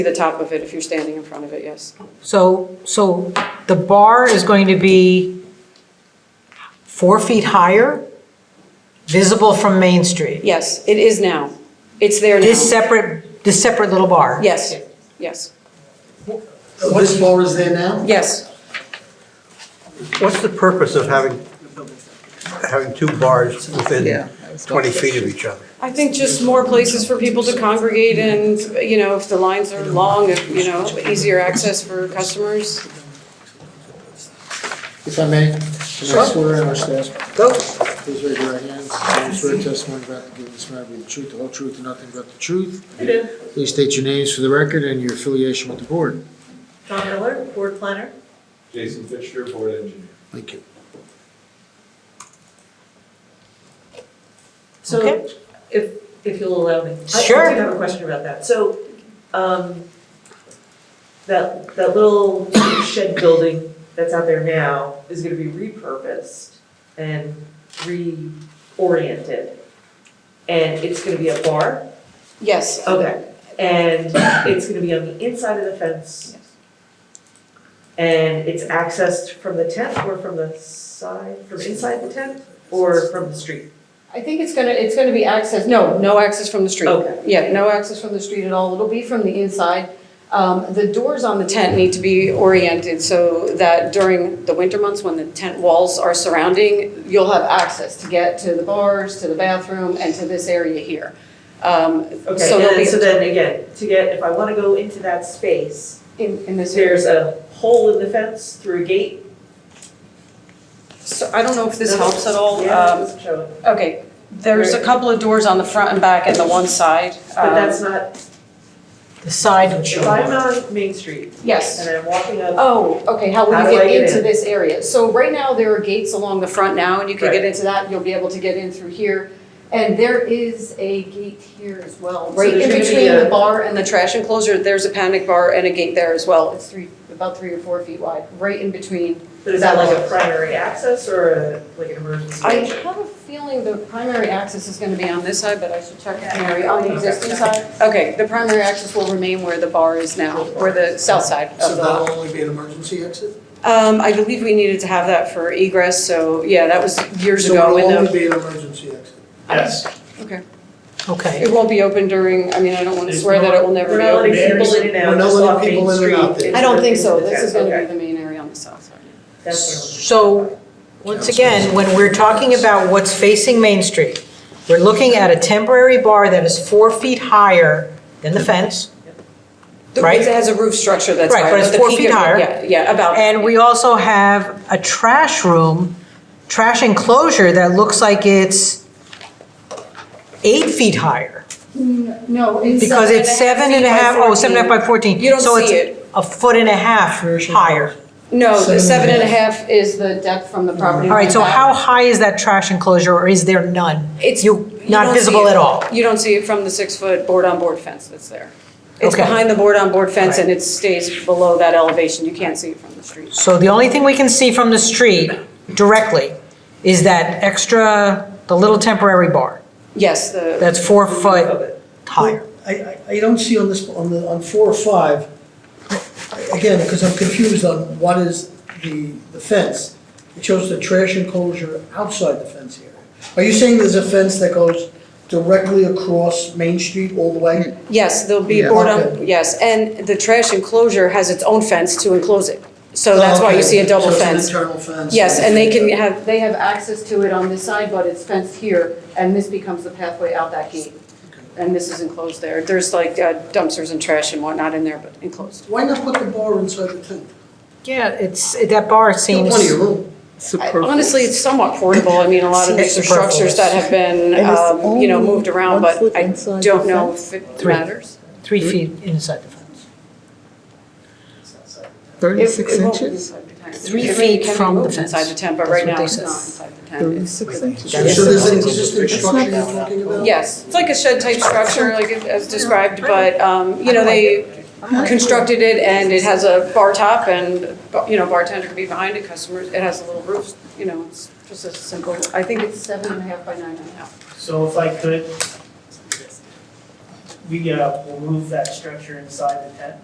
see the top of it if you're standing in front of it, yes. So, so the bar is going to be four feet higher, visible from Main Street? Yes, it is now. It's there This now. separate, this separate little bar? Yes, yes, This bar is there now? yes. What's the purpose of having, having two bars Yeah, within I was about 20 to feet of each other? I think just more places for people to congregate and, you know, if the lines are long, if, you know, easier access for customers. If I may, can I Sure. swear in our staff, Go. please raise your right hands. I swear testimony about to give in this matter will be the truth, the whole truth, and nothing but the truth. I do. Please state your names for the record and your affiliation with the board. John Miller, board planner. Jason Fisher, board engineer. Thank you. So Okay. if, if you'll allow me. I- Sure. I do have a question about that. So, um, that, that little shed building that's out there now is gonna be repurposed and reoriented. And it's gonna be a bar? Yes, Okay. And it's gonna be on the inside of the fence? And it's accessed from the tent or from the side, from inside the tent or from the street? I think it's gonna, it's gonna be access, no, no access from the street. Okay. Yeah, no access from the street at all, it'll be from the inside. Um, The doors on the tent need to be oriented so that during the winter months, when the tent walls are surrounding, you'll have access to get to the bars, to the bathroom, and to this area here. Um, Okay, So and there'll then, be, so then again, to get, if I wanna go into that space, in in this area. there's a hole in the fence through a gate? So I don't know if this helps at all. Yeah, Um, it's showing. Okay, there's a couple of doors on the front and back and the one side. But Um, that's not, The side, if I'm on Main Street Yes. and I'm walking up, Oh, okay, how will How you do I get get into in? this area? So right now, there are gates along the front now, and you can get Right. into that, you'll be able to get in through here. And there is a gate here as well, So right there's in gonna be between a- the bar and the trash enclosure, there's a panic bar and a gate there as well. It's three, about three or four feet wide, right in between. but is that like a primary access or a, like an emergency? I have a feeling the primary access is gonna be on this side, but I should check with Mary, on the Okay. existing side. Okay, the primary access will remain where the bar is now, or the south side of the. only be an emergency exit? Um, I believe we needed to have that for egress, so yeah, that was years ago So when it'll the, only be an emergency exit? Yes. okay. okay. It won't be open during, I mean, I don't wanna There's swear that it will never We're be not letting open. people in and We're out, not just letting off Main people in and Street. out there. into I don't think the- so, into the this is town. gonna be Okay. the main area on the south side. That's So, once again, when we're talking about what's facing Main Street, we're looking at a temporary bar that is four feet higher than the fence, The- Right. It has a roof structure that's Right, higher. but it's the four peak feet of- higher. Yeah, yeah, about. And we also have a trash room, trash enclosure that looks like it's eight feet higher. No, it's. Because it's seven and a half, oh, seven and a half by 14. You don't So it's see it. a foot and a half higher. No, the seven Seven and and a a half is the depth from the property. All right, line so back. how high is that trash enclosure, or is there none? It's. You- you not don't visible see it. at all. You don't see it from the six-foot board-on-board fence that's there. It's Okay. behind the board-on-board fence and it stays below that elevation. You can't see it from the street. So the only thing we can see from the street directly is that extra, the little temporary bar Yes, the, that's four where. foot higher. I, I, I don't see on this, on the, on four or five, again, because I'm confused on what is the, the fence. It shows the trash enclosure outside the fence area. Are you saying there's a fence that goes directly across Main Street all the way? yes, there'll be Yeah. board-on, Okay. yes. And the trash enclosure has its own fence to enclose it. So that's why you see a double Oh, So it's an fence. internal fence? Yes, and they can have, they have access to it on this side, but it's fenced here, and this becomes the pathway out that gate. And this is enclosed there. There's like uh, dumpsters and trash and whatnot in there, but enclosed. Why not put the bar inside the tent? Yeah, it's, that bar seems. Plenty of room. I- Honestly, it's somewhat portable. I mean, a lot of It's these are structures that have been, And it's um, you know, only moved around, one but foot I inside don't the know if it Three. matters. Three feet inside the fence. Thirty-six It- it won't be inches? inside the tent. Three It feet can be from the moved Inside fence. the tent, but That's right what now they it's said. not inside the tent. It's- Thirty-six inches. So there's an existing structure you're talking about? Yes, it's like a shed-type structure, like it- as described, but, um, you know, they constructed it and it has a bar top and, you know, bartender can be behind it, customers, it has a little roof, you know, it's just a simple, I think it's seven and a half by nine and a half. So if I could, we, uh, will move that structure inside the tent